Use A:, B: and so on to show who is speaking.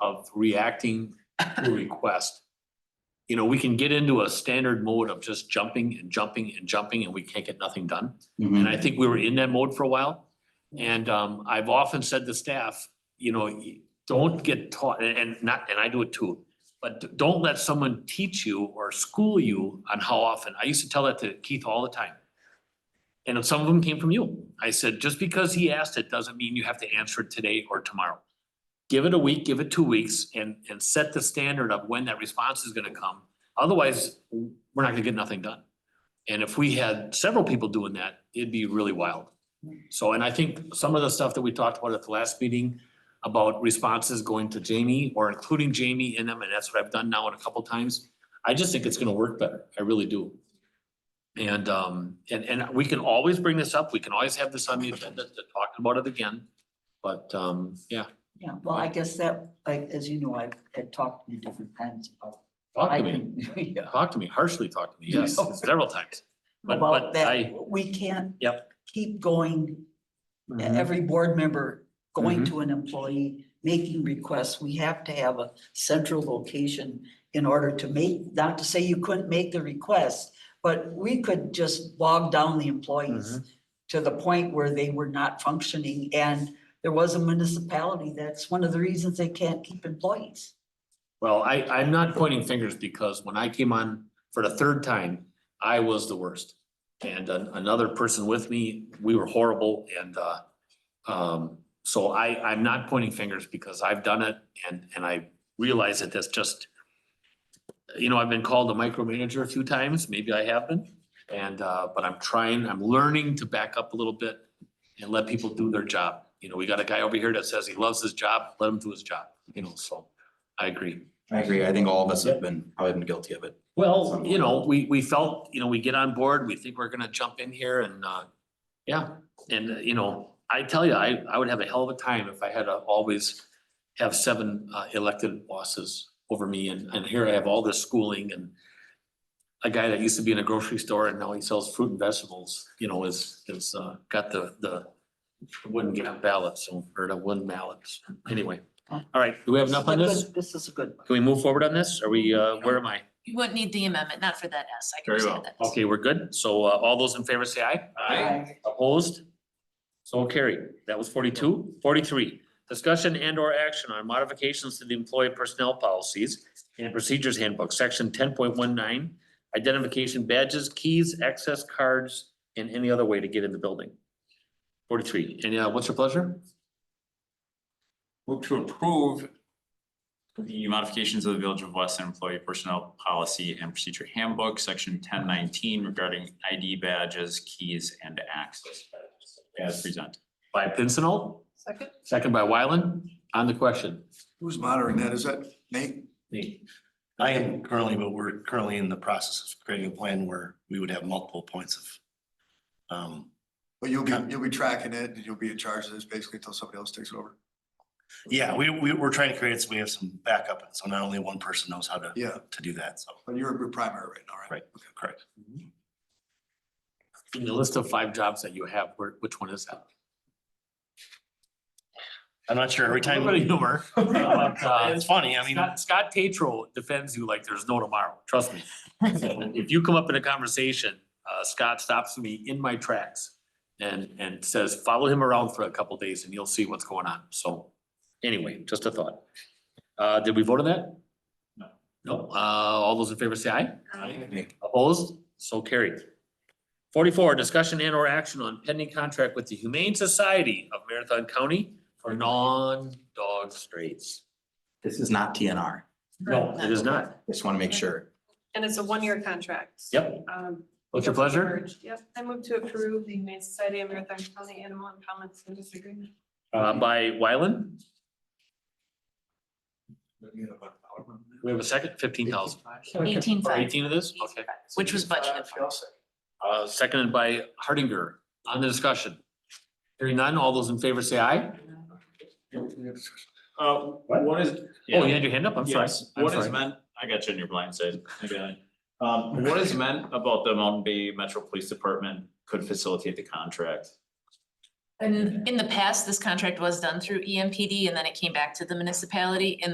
A: of reacting to a request. You know, we can get into a standard mode of just jumping and jumping and jumping and we can't get nothing done. And I think we were in that mode for a while. And um, I've often said to staff, you know, y- don't get taught, and- and not, and I do it too. But d- don't let someone teach you or school you on how often. I used to tell that to Keith all the time. And some of them came from you. I said, just because he asked it doesn't mean you have to answer it today or tomorrow. Give it a week, give it two weeks and, and set the standard of when that response is gonna come. Otherwise, w- we're not gonna get nothing done. And if we had several people doing that, it'd be really wild. So, and I think some of the stuff that we talked about at the last meeting about responses going to Jamie or including Jamie in them, and that's what I've done now in a couple times. I just think it's gonna work better. I really do. And um, and and we can always bring this up. We can always have this on the agenda to talk about it again. But um, yeah,
B: Yeah, well, I guess that, like, as you know, I've had talked to you different times about.
A: talk
B: I
A: to me,
B: can- yeah,
A: talk to me, harshly talk to me, yes, several times. But
B: About
A: but I,
B: that, we can't.
A: Yep.
B: Keep going, uh,
A: Mm-hmm.
B: every board member going to an employee, making requests. We have to have a central location in order to make, not to say you couldn't make the request, but we could just bog down the employees to the point where they were not functioning. And there was a municipality, that's one of the reasons they can't keep employees.
A: well, I I'm not pointing fingers because when I came on for the third time, I was the worst. And an- another person with me, we were horrible and uh, um, so I I'm not pointing fingers because I've done it and and I realize that that's just you know, I've been called a micromanager a few times, maybe I have been, and uh, but I'm trying, I'm learning to back up a little bit and let people do their job. You know, we got a guy over here that says he loves his job, let him do his job, you know, so I agree.
C: I agree. I think all of us have been, probably been guilty of it.
A: Well, you know, we, we felt, you know, we get on board, we think we're gonna jump in here and, uh, yeah, and, uh, you know, I tell you, I, I would have a hell of a time if I had to always have seven, uh, elected bosses over me and, and here I have all this schooling and a guy that used to be in a grocery store and now he sells fruit and vegetables, you know, is, is, uh, got the, the wooden ballots or the wooden ballots. Anyway, all right, do we have enough on
B: This is
A: this?
B: a good- This is a good one.
A: Can we move forward on this? Are we, uh, where am I?
D: You wouldn't need the amendment, not for that S, I can
C: Very
D: understand
C: well.
D: that. S.
A: Okay, we're good. So uh, all those in favor say aye. Opposed? So carried. That was 42. 43. discussion and or action on modifications to the employee personnel policies and procedures handbook, section ten point one nine, identification badges, keys, access cards, and any other way to get in the building. Forty-three. And uh, what's your pleasure?
E: Move to approve the modifications of the Village of Weston Employee Personnel Policy and Procedure Handbook, section ten nineteen regarding ID badges, keys, and access badges as presented.
A: By Pincinel,
D: Second?
A: second by Wyland, on the question.
F: Who's monitoring that? Is that Nate?
G: Me. I am currently, but we're currently in the process of creating a plan where we would have multiple points of. Um,
F: But you'll be, you'll be tracking it and you'll be in charge of this basically until somebody else takes it over.
G: yeah, we, we, we're trying to create, it so we have some backup, so not only one person knows how to,
F: Yeah,
G: to do that, so,
F: but you're your primary right now, right?
G: Right. correct.
A: In the list of five jobs that you have, where, which one is that?
G: I'm not sure, every time,
A: Everybody humor. But, uh,
G: it's funny, I mean,
A: Scott, Scott Tatro defends you like there's no tomorrow, trust me. So If you come up in a conversation, uh, Scott stops me in my tracks and, and says, follow him around for a couple days and you'll see what's going on. So anyway, just a thought. Uh, did we vote on that?
E: No.
A: No, uh, all those in favor say aye.
D: Aye.
A: Opposed? So carried. Forty-four, discussion and or action on pending contract with the Humane Society of Marathon County for non-dog strays.
C: This is not TNR.
A: No, it is not.
C: Just want to make sure.
H: And it's a one-year contract.
A: Yep.
H: Um,
A: What's your pleasure?
H: merged. Yep, I move to approve the Humane Society of Marathon County Animal and Common Service Agreement.
A: Uh, by Wyland? We have a second, fifteen thousand.
D: Eighteen
A: Or
D: five.
A: eighteen of this? Okay.
D: Which was budgeted for.
A: Uh, seconded by Hardinger. On the discussion. Hearing none, all those in favor say aye.
E: Uh, what is?
A: Oh, you had your hand up? I'm sorry.
E: Yes,
A: I'm
E: what is
A: sorry.
E: meant, I got you in your blind side, I got it. Um, what is meant about the Mountain Bay Metro Police Department could facilitate the contract?
D: E And in the past, this contract was done through EMPD and then it came back to the municipality and